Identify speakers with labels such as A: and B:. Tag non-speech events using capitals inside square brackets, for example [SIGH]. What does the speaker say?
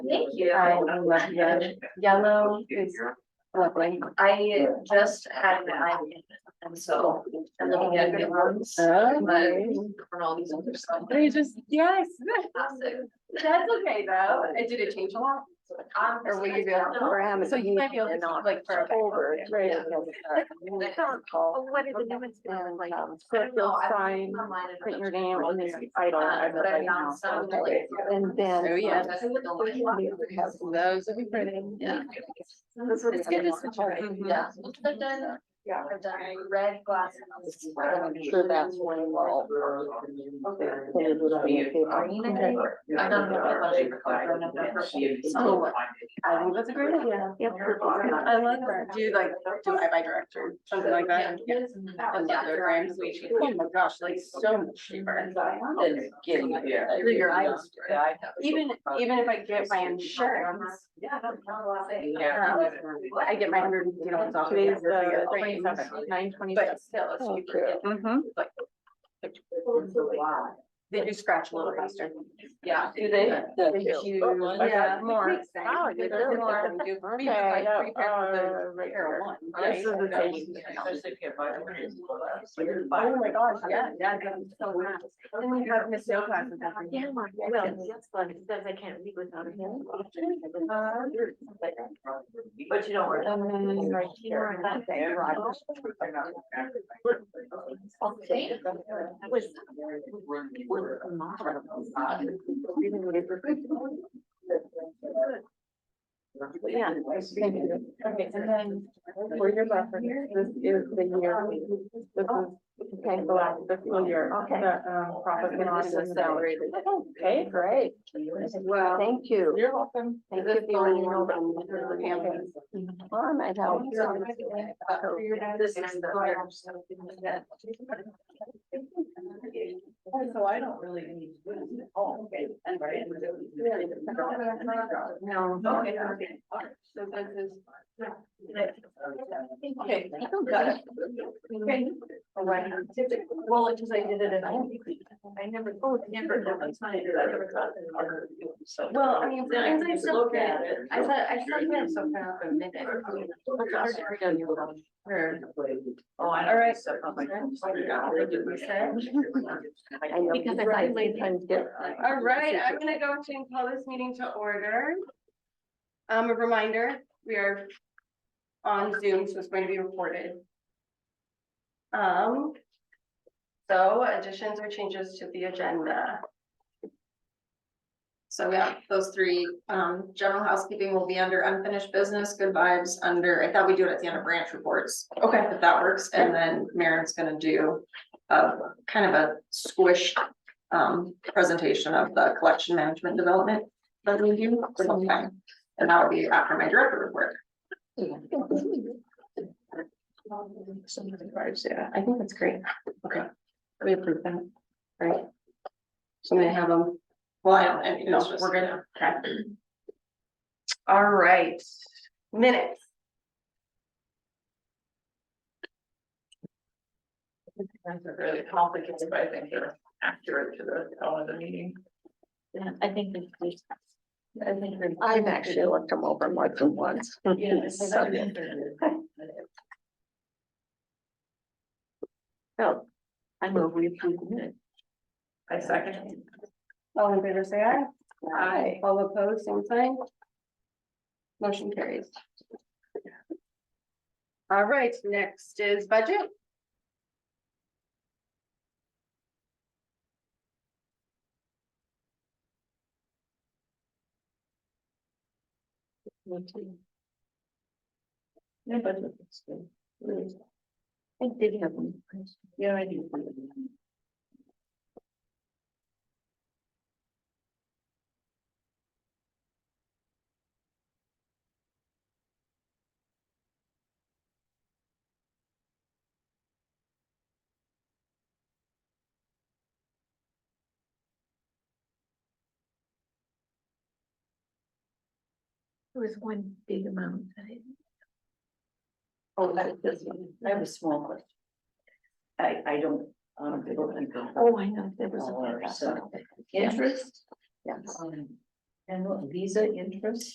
A: Thank you.
B: I love the yellow is lovely.
A: I just had an eye, and so I'm looking at new ones. But
B: Oh.
A: on all these other stuff.
B: They just, yes.
A: That's okay though. It did it change a lot. Um,
B: Or we could go
A: no.
B: for him.
C: So you might be able to
B: not
C: like for a back-
B: over. Right.
C: Yeah.
A: Oh,
B: Call.
C: what are the new ones gonna look
B: And,
C: like?
B: um,
A: I
B: put
A: don't know,
B: those
A: I've been
B: sign,
A: online and
B: print your
A: looked
B: name
A: at
B: on
A: those
B: the
A: things,
B: title.
A: uh,
B: I've
A: But I found some like.
B: been- And then.
C: Oh, yeah.
A: I looked at the
B: um,
A: light.
C: Those would be pretty.
A: Yeah.
B: That's what
C: It's good to switch
B: around.
C: around.
A: Yeah, I've done,
B: Yeah.
A: I've done red glasses.
B: I'm sure that's one of all.
A: Green, I think. I've done a bunch of color and I've done purple. So,
B: I think that's a great idea.
A: Yep.
C: I like that. Do like, do I by director, something like that? And the other grams we choose. Oh my gosh, like so much cheaper.
B: Than getting it.
A: Yeah.
B: Your eyes.
A: Yeah, I
B: Even, even if I get my insurance.
A: Yeah, that's not a lot of things.
B: um, I get my hundred and fifty dollars off.
C: Today's the
B: Nine twenty-seven.
C: But still, it's
B: Oh,
C: cheaper.
B: Mm-hmm.
C: They do scratch a little faster.
A: Yeah.
B: Do they?
C: do.
B: Oh, Yeah, more.
C: Wow, they really
B: More.
C: do. We have,
B: Okay,
C: like
B: yeah,
C: three pairs of
B: uh,
C: those
B: right
C: pair
B: here.
C: of one,
B: This
C: right?
B: is the same.
C: Oh my gosh, yeah, yeah.
B: Then we have Miss Yo classes.
D: Yeah, well, that's fun, because I can't leave without
A: Mhm.
D: him.
A: [LAUGHS]
D: But you don't worry.
B: Right
A: Okay.
D: Was.
B: Yeah. Okay, and then for your reference, this is the year, this is okay, the last fiscal year.
D: Okay.
B: that, um, profit and
C: And
B: loss
C: this is
B: is
C: salary.
B: Okay, great.
C: Well.
B: Thank you. You're welcome.
C: Is this the one you know
A: uh,
C: about the campaign?
B: Well, I
A: Oh,
B: might help.
A: This is the.
B: So I don't really need to do this. Oh, okay. No.
A: Okay,
B: So this is.
A: Okay.
B: Got it.
A: Okay. Well, it's just I did it and I. I never, oh, never. Well, I mean, sometimes I still get it. I said, I still get it somehow. but maybe I don't really-
D: Oh, I.
A: All right.
D: Because I thought you might times get.
C: All right, I'm gonna go and call this meeting to order. Um, a reminder, we are on Zoom, so it's going to be recorded. Um, so additions or changes to the agenda. So we have those three, um, general housekeeping will be under unfinished business, good vibes under, I thought we do it at the end of branch reports. Okay. If that works, and then Maren's gonna do a kind of a squished um, presentation of the collection management development that we do sometime. And that would be after my director report. Some of the cards, yeah, I think that's great. Okay. We approve that. Right. So they have them. Well, I don't, and, you know, we're gonna, okay. All right, minutes.
D: Really complicated, but I think they're accurate to the, tone of the meeting. Yeah, I think. I think.
B: I've actually looked them over more than
D: [LAUGHS]
B: once.
D: So. I move we approve the minutes. I second.
C: All in favor, say aye.
B: Aye.
C: All opposed, same sign. Motion carries. All right, next is budget.
D: I did have one question. Yeah, I do. There was one big amount that I.
E: Oh, that is this one. I have a small question. I, I don't, um, I don't think.
D: Oh, I know, there was.
E: Or
D: a
E: so.
D: Yeah.
E: Interest?
D: Yes.
E: Um,
D: And what, visa interest?